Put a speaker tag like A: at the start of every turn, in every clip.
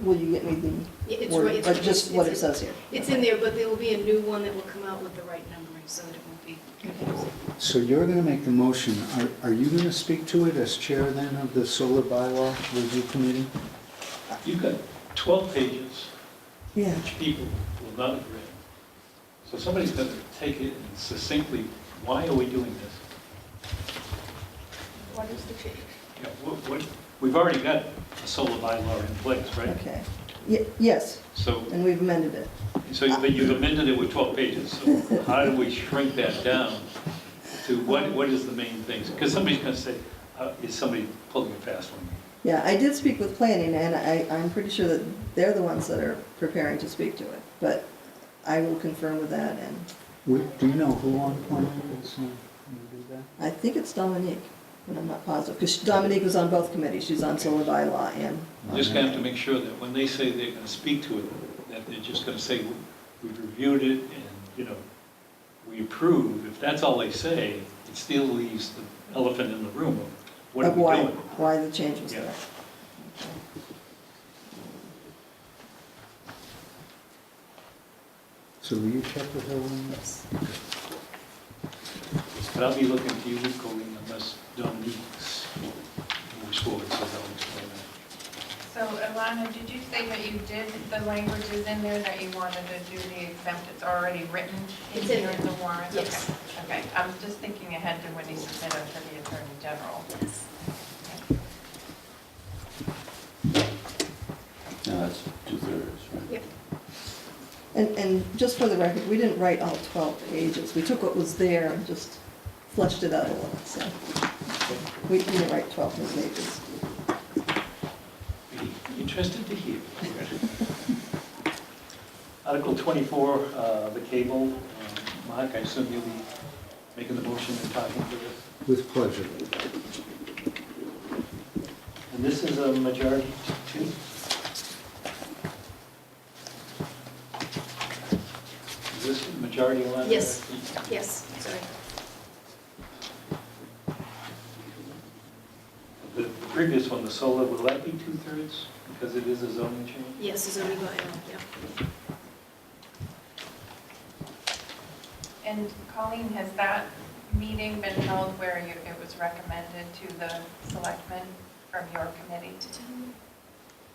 A: Will you get me the
B: Yeah, it's right,
A: word,
B: it's-
A: but just what it
B: it's-
A: says here?
B: It's in there, but there will be a new one that will come out with the right numbering, so that it won't be confusing.
C: So you're going to make the motion. Are- Are you going to speak to it as chair then of the solar bylaw review committee?
D: You've got 12 pages,
A: Yeah.
D: which people will not have read. So somebody's going to take it and succinctly, why are we doing this?
B: What is the change?
D: You know, what- what- We've already got a solar bylaw in place, right?
A: Okay. Ye- Yes,
D: So,
A: and we've amended it.
D: so but you've amended it with 12 pages, so how do we shrink that down to what, what is the main things? Because somebody's going to say, uh, is somebody pulling a fast one?
A: Yeah, I did speak with planning, and I, I'm pretty sure that they're the ones that are preparing to speak to it, but I will confirm with that, and
C: Would- Do you know who on planning is going to do that?
A: I think it's Dominique, but I'm not positive, because Dominique was on both committees, she's on solar bylaw and,
D: We're Just going to have to make sure that when they say they're going to speak to it, that they're just going to say, we've reviewed it and, you know, we approve. If that's all they say, it still leaves the elephant in the room of what are
A: of
D: we
A: why,
D: doing?
A: why the change was
D: Yeah.
A: there.
C: So will you check with her on that?
D: But I'll be looking to you, Colleen, unless Dominique's moves forward, so they'll explain
E: So Alana, did you say that you did, the language is in there that you wanted to do the exempt, it's already written in
B: It's in
E: here in the
B: there.
E: warrant?
B: Yes.
E: Okay, Okay. I'm just thinking ahead to when he submitted to the Attorney General.
F: No, that's two-thirds, right?
B: Yep.
A: And, and just for the record, we didn't write all 12 pages, we took what was there and just fleshed it out a little, so. We didn't write 12 new pages.
D: that. Be interested to hear. Article 24, uh, the cable. Um, Mark, I assume you'll be making the motion and talking to this?
C: With pleasure.
D: And this is a majority two? Is this a majority one?
B: Yes. Yes, sorry.
D: The the previous one, the solar, will that be two-thirds because it is a zoning change?
B: Yes, is only by, yeah.
E: And Colleen, has that meeting been held where you- it was recommended to the selectmen from your committee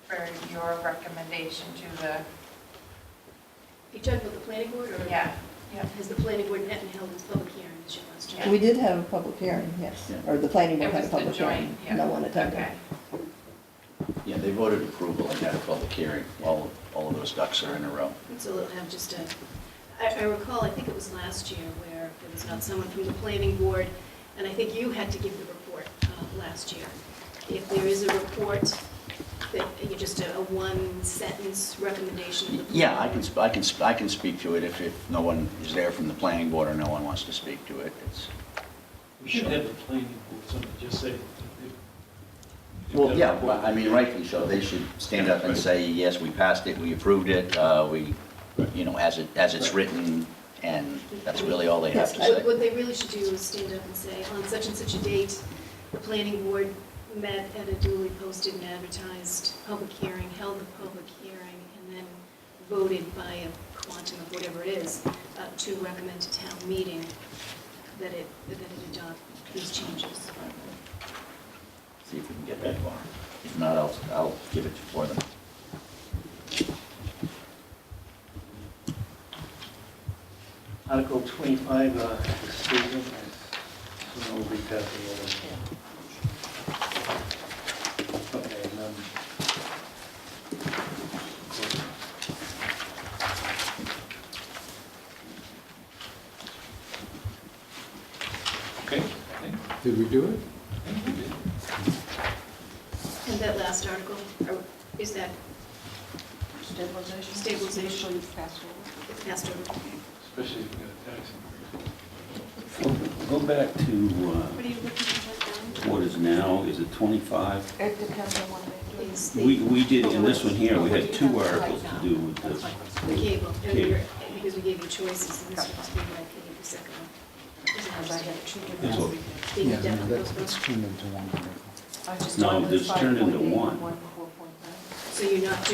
E: for your recommendation to the,
B: You talking about the planning board,
A: Mm-hmm.
B: or?
E: yeah, yeah.
B: Has the planning board met and held its public hearing, is your last
A: We
B: check?
A: did have a public hearing, yes, or the planning board
E: It
A: had a
E: was the
A: public hearing.
E: joint, yeah.
A: No one attended.
E: Okay.
F: Yeah, they voted approval and had a public hearing. All, all of those ducks are in a row.
B: So they'll have just a, I I recall, I think it was last year, where there was not someone from the planning board, and I think you had to give the report uh, last year. If there is a report, that, you just a a one-sentence recommendation of the planning
F: Yeah, I can,
B: board.
F: sp- I can, sp- I can speak to it if, if no one is there from the planning board or no one wants to speak to it. It's,
D: We should have a planning board, somebody just say. if-
F: well, yeah, well, I mean, rightly so. They should stand up and say, yes, we passed it, we approved it, uh, we, you know, as it, as it's written, and that's really all they have to
B: What-
F: say.
B: What they really should do is stand up and say, on such and such a date, the planning board met at a duly posted and advertised public hearing, held the public hearing, and then voted by a quantum of whatever it is, uh, to recommend to town meeting that it, that it adopt these changes.
F: See if we can get that far. If not, I'll, I'll give it for them.
D: Article 25, uh, Susan, I assume we'll read that the other. Okay, and then. Okay, I think,
C: Did we do it?
D: I think we did.
B: And that last article, or is that
G: Stabilization.
B: Stabilization.
G: Usually fast forward.
B: passed over?
D: especially if we got a tax increase.
F: Go back to uh,
B: What are you looking at
F: what is now, is it 25?
G: It depends on what they do.
B: Is the-
F: We, we did, in this one here, we had two articles to do with this.
B: The cable, and we
F: Cable.
B: were- because we gave you choices, and this was the one I gave the second one.
G: Because I had two different-
F: That's what-
B: Being
C: Yeah, no,
B: definitely
C: that's
B: postponed.
C: that's turned into one article.
G: I just
F: No,
G: wanted
F: this turned into
G: 5.8,
F: one.
G: One four point nine.
B: So you're not doing